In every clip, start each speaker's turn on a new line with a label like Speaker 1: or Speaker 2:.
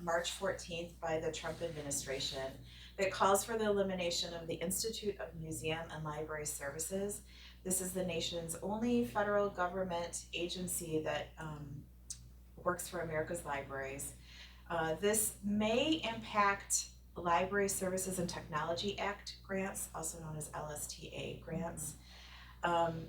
Speaker 1: March fourteenth by the Trump administration that calls for the elimination of the Institute of Museum and Library Services. This is the nation's only federal government agency that um, works for America's libraries. Uh, this may impact Library Services and Technology Act grants, also known as LSTA grants. Um,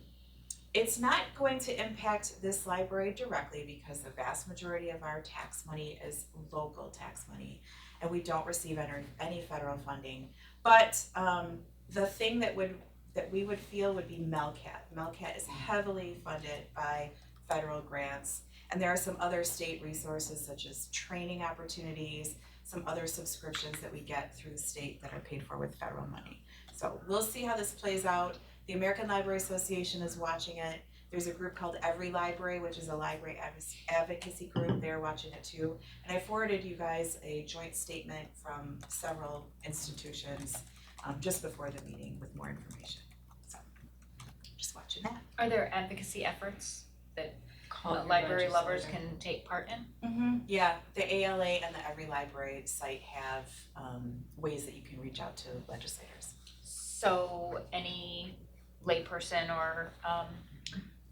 Speaker 1: it's not going to impact this library directly because the vast majority of our tax money is local tax money and we don't receive any, any federal funding. But um, the thing that would, that we would feel would be Melcat. Melcat is heavily funded by federal grants. And there are some other state resources such as training opportunities, some other subscriptions that we get through the state that are paid for with federal money. So we'll see how this plays out. The American Library Association is watching it. There's a group called Every Library, which is a library advoc- advocacy group. They're watching it too. And I forwarded you guys a joint statement from several institutions um, just before the meeting with more information. So just watching that.
Speaker 2: Are there advocacy efforts that library lovers can take part in?
Speaker 1: Mm-hmm. Yeah, the ALA and the Every Library site have um ways that you can reach out to legislators.
Speaker 2: So any layperson or um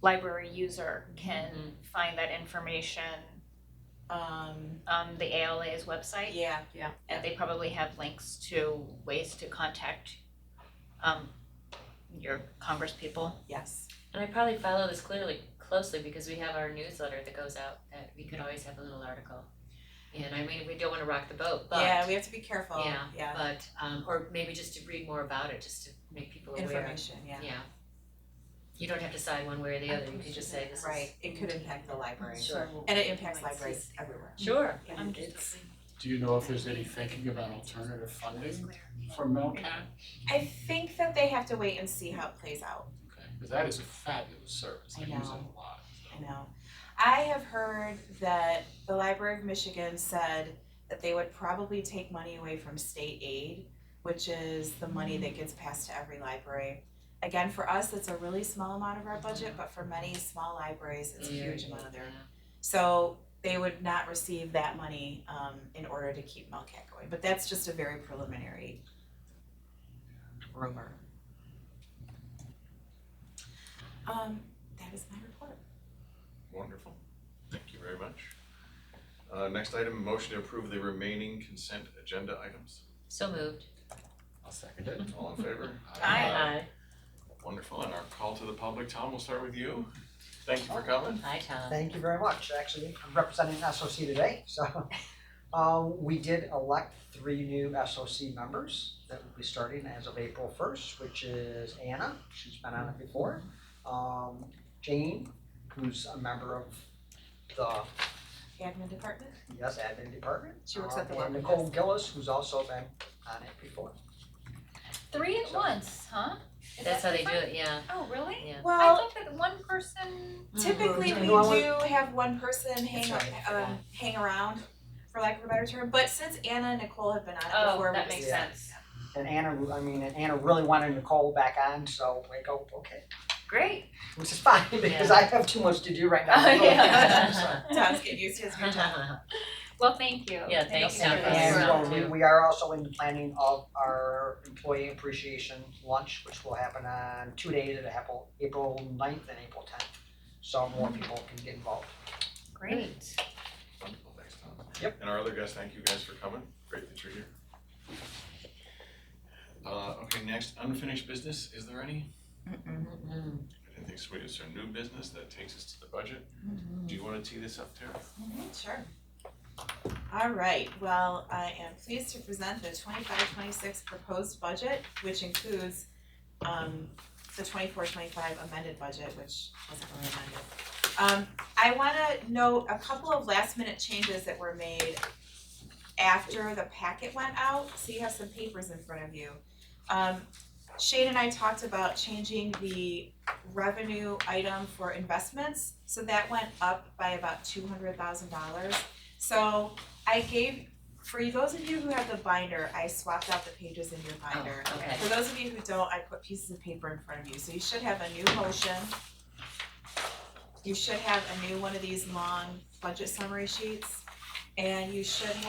Speaker 2: library user can find that information
Speaker 1: Um,
Speaker 2: on the ALA's website?
Speaker 1: yeah,
Speaker 2: And they probably have links to ways to contact um your congresspeople.
Speaker 1: yes,
Speaker 3: And I probably follow this clearly closely because we have our newsletter that goes out that we could always have a little article. And I mean, we don't wanna rock the boat, but
Speaker 1: yeah, we have to be careful, yeah,
Speaker 3: Yeah, but um or maybe just to read more about it, just to make people aware.
Speaker 1: information, yeah,
Speaker 3: Yeah. You don't have to decide one way or the other, you can just say this is.
Speaker 1: right, it could impact the library.
Speaker 3: Sure.
Speaker 1: And it impacts libraries everywhere.
Speaker 3: Sure.
Speaker 1: Yeah.
Speaker 3: I'm
Speaker 2: It's-
Speaker 3: just.
Speaker 4: Do you know if there's any thinking about alternative funding for Melcat?
Speaker 1: I think that they have to wait and see how it plays out,
Speaker 4: Okay, because that is a fabulous service, I
Speaker 1: I
Speaker 4: use it
Speaker 1: know.
Speaker 4: a lot,
Speaker 1: I
Speaker 4: so.
Speaker 1: know. I have heard that the Library of Michigan said that they would probably take money away from state aid, which is the money
Speaker 3: Mm.
Speaker 1: that gets passed to every library. Again, for us, it's a really small amount of our budget, but for many small libraries, it's a huge amount of their So they would not receive that money um in order to keep Melcat going, but that's just a very preliminary rumor. Um, that is my report.
Speaker 5: Wonderful. Thank you very much. Uh, next item, motion to approve the remaining consent agenda items.
Speaker 3: So moved.
Speaker 4: I'll second it.
Speaker 5: All in favor?
Speaker 2: Aye.
Speaker 5: Wonderful. And our call to the public, Tom, we'll start with you. Thank you for coming.
Speaker 3: Hi, Tom.
Speaker 6: Thank you very much, actually, I'm representing SOC today, so. Um, we did elect three new SOC members that will be starting as of April first, which is Anna, she's been on it before. Um, Jane, who's a member of the,
Speaker 1: Admin department?
Speaker 6: yes, admin department.
Speaker 1: She works at the
Speaker 3: Oh,
Speaker 6: Um, and
Speaker 1: welcome
Speaker 6: Nicole Gillis, who's also been on it before.
Speaker 2: Three at once, huh? Is
Speaker 3: That's how
Speaker 2: that
Speaker 3: they do
Speaker 2: different?
Speaker 3: it, yeah.
Speaker 2: Oh, really?
Speaker 3: Yeah. Mm-hmm.
Speaker 2: I thought that one person
Speaker 1: Typically, we
Speaker 6: No, I
Speaker 1: do have one person hang
Speaker 3: That's right, I forgot.
Speaker 1: um hang around, for lack of a better term, but since Anna and Nicole have been on it
Speaker 2: Oh,
Speaker 1: before, we
Speaker 2: that
Speaker 1: just
Speaker 2: makes
Speaker 6: Yeah.
Speaker 2: sense.
Speaker 6: And Anna, I mean, and Anna really wanted Nicole back on, so we go, okay,
Speaker 2: Great.
Speaker 6: which is fine, because I have too much to do right now.
Speaker 2: Oh, yeah.
Speaker 6: So-
Speaker 1: Tom's getting used to his new job.
Speaker 2: Well, thank you.
Speaker 3: Yeah, thanks,
Speaker 2: you for
Speaker 3: John, for
Speaker 2: this.
Speaker 3: your help.
Speaker 6: And uh, we we are also in the planning of our employee appreciation lunch, which will happen on two days at April, April 9th and April tenth. So more people can get involved.
Speaker 2: Great.
Speaker 5: Wonderful, thanks, Tom.
Speaker 6: Yep.
Speaker 5: And our other guests, thank you guys for coming. Great that you're here. Uh, okay, next, unfinished business. Is there any?
Speaker 3: Mm-mm.
Speaker 5: I didn't think so. Is there new business that takes us to the budget? Do you want to tee this up, Tara?
Speaker 1: Mhm, Sure. All right, well, I am pleased to present the twenty-five, twenty-six proposed budget, which includes um the twenty-four, twenty-five amended budget, which wasn't really amended. Um I wanna note a couple of last minute changes that were made after the packet went out, so you have some papers in front of you. Um Shane and I talked about changing the revenue item for investments, so that went up by about two hundred thousand dollars. So I gave, for you- those of you who have the binder, I swapped out the pages in your binder.
Speaker 3: Oh, okay.
Speaker 1: For those of you who don't, I put pieces of paper in front of you, so you should have a new motion. You should have a new one of these long budget summary sheets, and you should